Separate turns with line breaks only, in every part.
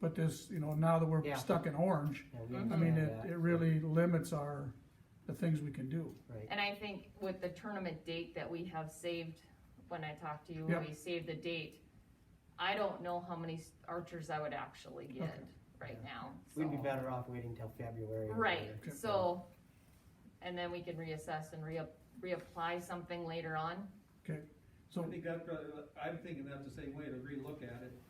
But this, you know, now that we're
Yeah.
stuck in orange,
Yeah, we
I mean,
understand
it,
that.
it really limits our, the things we can do.
Right.
And I think with the tournament date that we have saved, when I talked to you,
Yeah.
we saved the date. I don't know how many archers I would actually get
Okay.
right now.
We'd be
so-
better off waiting till February. or
Right,
later.
so, and then we can reassess and re- reapply something later on.
Okay,
I
so,
think that, probably- I'm thinking that's the same way to relook at it,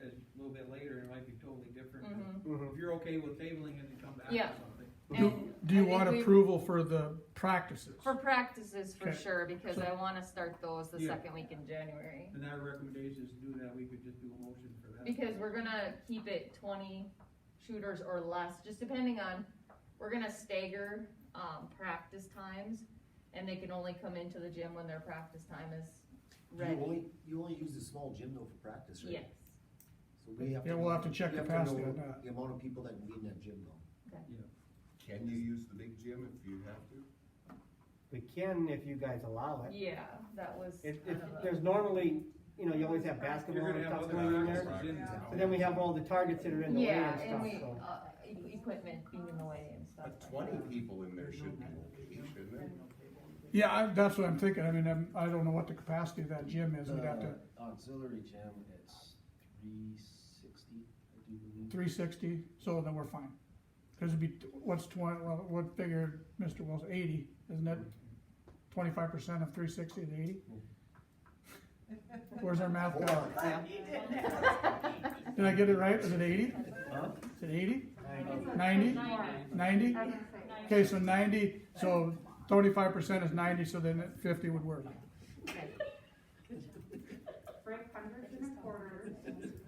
as a little bit later, it might be totally different.
Mhm.
Mhm.
If you're okay with tabling it and come back
Yeah.
with something.
do,
And
do you
I think
want
we-
approval for the practices?
For practices, for
Okay.
sure, because
So-
I wanna start those the
Yeah.
second week in January.
And our recommendation is to do that, we could just do a motion for that.
Because we're gonna keep it twenty shooters or less, just depending on, we're gonna stagger, um, practice times. And they can only come into the gym when their practice time is
You
ready.
only, you only use the small gym though for practice, right?
Yes,
So we have to.
Yeah, we'll have to check
we have
capacity
know
on that.
The amount of people that can be in that gym though.
Can you use the big gym if you have to?
We can if you guys allow it.
yeah, that was.
If,
I
if,
don't know.
there's normally, you know, you always have basketball
You're
and
gonna have
stuff
other
going in there.
practices in
Yeah.
town.
So then we have all the targets that are in the way
Yeah,
and
and
stuff,
we,
so.
uh, e- equipment being in the way and stuff.
But
like
twenty
that.
people in there should be okay, shouldn't it?
Yeah, I, that's what I'm thinking, I mean, I'm, I don't know what the capacity of that gym is, we'd
Uh,
have to,
The
Uh,
Auxiliary gym, it's three sixty, I do believe.
three sixty, so then we're fine. Cause it'd be, what's twenty, well, what figure, Mr. Wells, eighty, isn't it? Twenty-five percent of three sixty is eighty? Where's our math guy?
Hold on.
Did I get it right, is it eighty?
Huh?
Is it eighty?
I-
Ninety? Ninety? Okay, so ninety, so twenty-five percent is ninety, so then fifty would work.
Break hundreds and a quarter,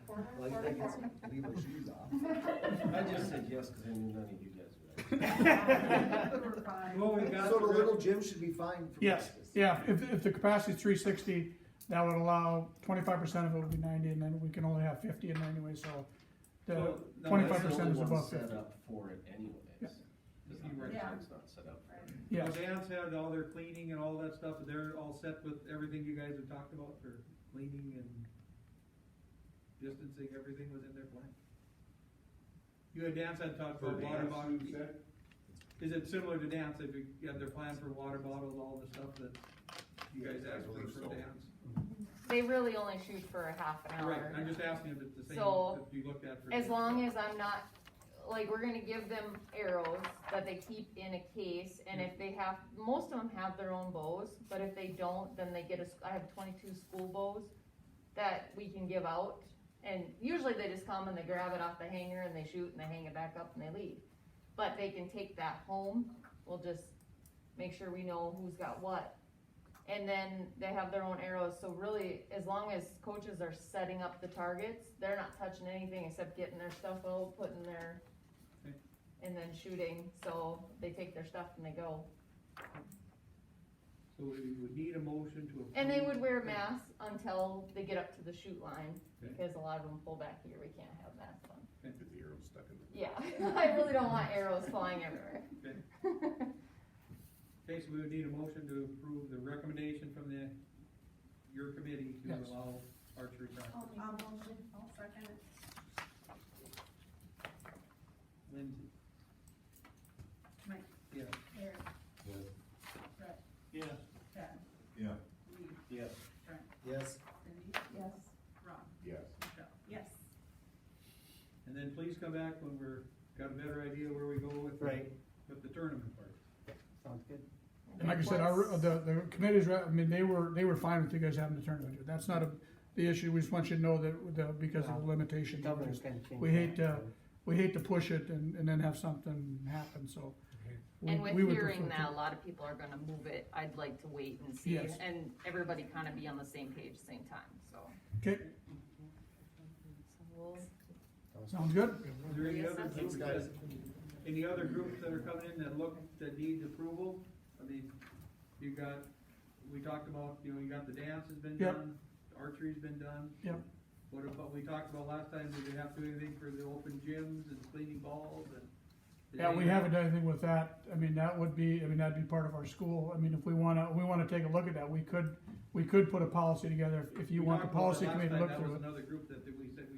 quarter,
Like, I
quarter,
guess,
quarter.
leave my shoes off.
I just said yes, cause I knew none of you guys would.
We're fine.
Well, we got.
So the
the-
little gym should be fine for
Yes,
practice.
yeah, if, if the capacity's three sixty, that would allow twenty-five percent of it would be ninety, and then we can only have fifty in there anyway, so. The
So, no,
twenty-five
That's the
percent
only
is
one
above
Set
fifty,
up for it anyways. Cause the
You're right.
gym's not set up for it.
yes,
So Dan's had all their cleaning and all that stuff, they're all set with everything you guys have talked about for cleaning and distancing, everything was in their plan? You had Dan said talked about water bottles. Is it similar to dance, if you you have their plan for water bottles, all the stuff that you guys
I
asked for
believe
for
so.
dance?
They really only shoot for a half an hour.
Right, I'm just asking if it's the same,
So,
if you looked at for.
As long as I'm not, like, we're gonna give them arrows that they keep in a case, and if they have, most of them have their own bows, but if they don't, then they get a s I have twenty-two school bows that we can give out, and usually they just come and they grab it off the hanger and they shoot and they hang it back up and they leave. But they can take that home, we'll just make sure we know who's got what. And then they have their own arrows, so really, as long as coaches are setting up the targets, they're not touching anything except getting their stuff out, putting their,
Okay.
and then shooting, so they take their stuff and they go.
So we would need a motion to.
And they
approve.
would wear masks until they get up to the shoot line,
Okay.
because a lot of them pull back here, we can't have masks on.
Get the arrow stuck in the.
Yeah, I really don't want arrows flying everywhere.
Okay. Okay, so we would need a motion to approve the recommendation from the, your committee to
Yes.
allow archery
Oh.
practice.
I'll motion, I'll second it.
Lindsay?
Mike,
Yeah.
Eric,
Yeah.
Brett,
Yeah.
Chad,
Yeah.
Lee,
Yes.
Trent,
Yes,
Cindy,
Yes.
Ron,
Yes.
Michelle. Yes.
And then please come back when we're, got a better idea where we go with. the-
Right,
With the tournament part.
sounds good.
and like I said, our, the, the committees, I mean, they were, they were fine with you guys having the tournament, that's not a, the issue, we just want you to know that, the because of the
The
limitations.
governor's gonna change.
We hate,
that,
uh,
so.
We hate to push it and, and then have something happen, so. we-
And with
we would
hearing
prefer to-
that, a lot of people are gonna move it, I'd like to wait and see,
Yes.
and everybody kinda be on the same page, same time, so.
Okay,
So we'll-
sounds good?
Is there any other
Reassess.
groups
thanks
that,
guys.
any other groups that are coming in that look, that need approval? I mean, you got, we talked about, you know, you got the dance has been
Yep.
done, archery's been done.
Yep.
What about, we talked about last time, did they have to do anything for the open gyms and cleaning balls and? did
Yeah, we
any-
haven't done anything with that, I mean, that would be, I mean, that'd be part of our school, I mean, if we wanna, we wanna take a look at that, we could, we could put a policy together, if- if you
We
want the
talked about
policy
that last
committee to
time.
look through
That
it.
was another group that, that we said